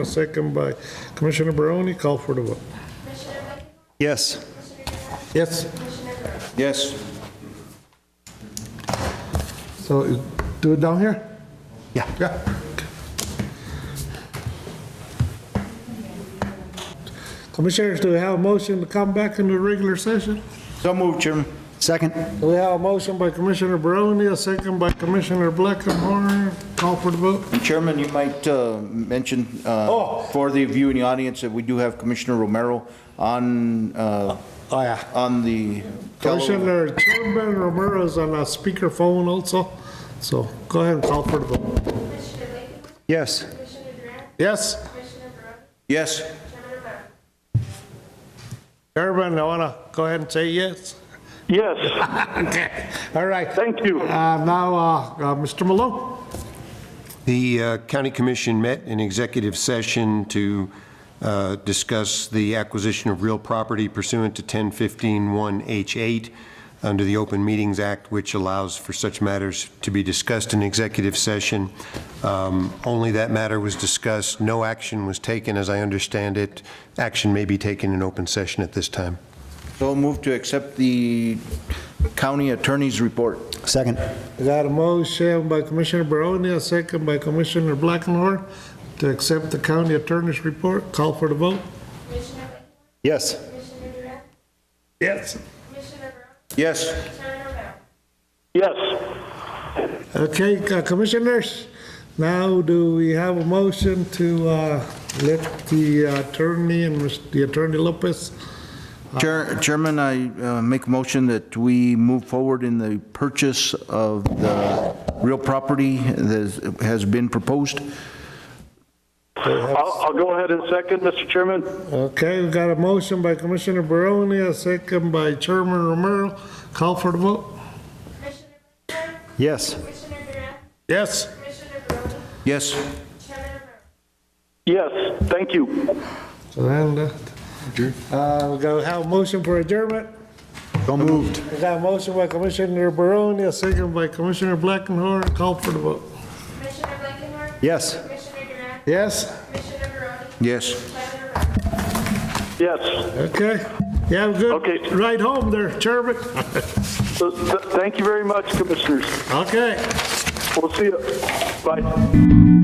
A second by Commissioner Barone, call for the vote. Yes. Yes. Yes. So do it down here? Yeah. Yeah. Commissioners, do we have a motion to come back into regular session? So moved, Chairman. Second? We have a motion by Commissioner Barone, a second by Commissioner Blackenhorn, call for the vote. And Chairman, you might uh, mention uh, Oh. for the view in the audience that we do have Commissioner Romero on, uh, Oh, yeah. on the. Commissioner Chairman Romero is on a speakerphone also, so go ahead and call for the vote. Commissioner Lakeman, Yes. Commissioner Durant, Yes? Commissioner Barone, Yes. Chairman Romero. Chairman, I want to go ahead and say yes. Yes, Okay, all right. thank you. Uh, Now, uh, uh, Mr. Malone, The uh, county commission met in executive session to uh, discuss the acquisition of real property pursuant to 1015-1H8 under the Open Meetings Act, which allows for such matters to be discussed in executive session. Um, Only that matter was discussed. No action was taken, as I understand it. Action may be taken in open session at this time. So moved to accept the county attorney's report. Second. I got a motion by Commissioner Barone, a second by Commissioner Blackenhorn to accept the county attorney's report. Call for the vote. Commissioner Lakeman, Yes. Commissioner Durant, Yes. Commissioner Barone, Yes. Chairman Romero. Yes. Okay, uh, commissioners, now do we have a motion to uh, let the attorney and Mr. the Attorney Lopez? Chair- Chairman, I uh, make a motion that we move forward in the purchase of the real property that has been proposed. I'll, I'll go ahead and second, Mr. Chairman. Okay, we got a motion by Commissioner Barone, a second by Chairman Romero. Call for the vote. Commissioner Lakeman, Yes. Commissioner Durant, Yes. Commissioner Barone, Yes. Chairman Romero. Yes, thank you. So then, uh, we got to have a motion for adjournment. So moved. We got a motion by Commissioner Barone, a second by Commissioner Blackenhorn. Call for the vote. Commissioner Lakeman, Yes. Commissioner Durant, Yes? Commissioner Barone, Yes. Chairman Romero. Yes, Okay. You have a Okay. good ride home there, Chairman. So, th- thank you very much, Commissioners. Okay. We'll see you. Bye.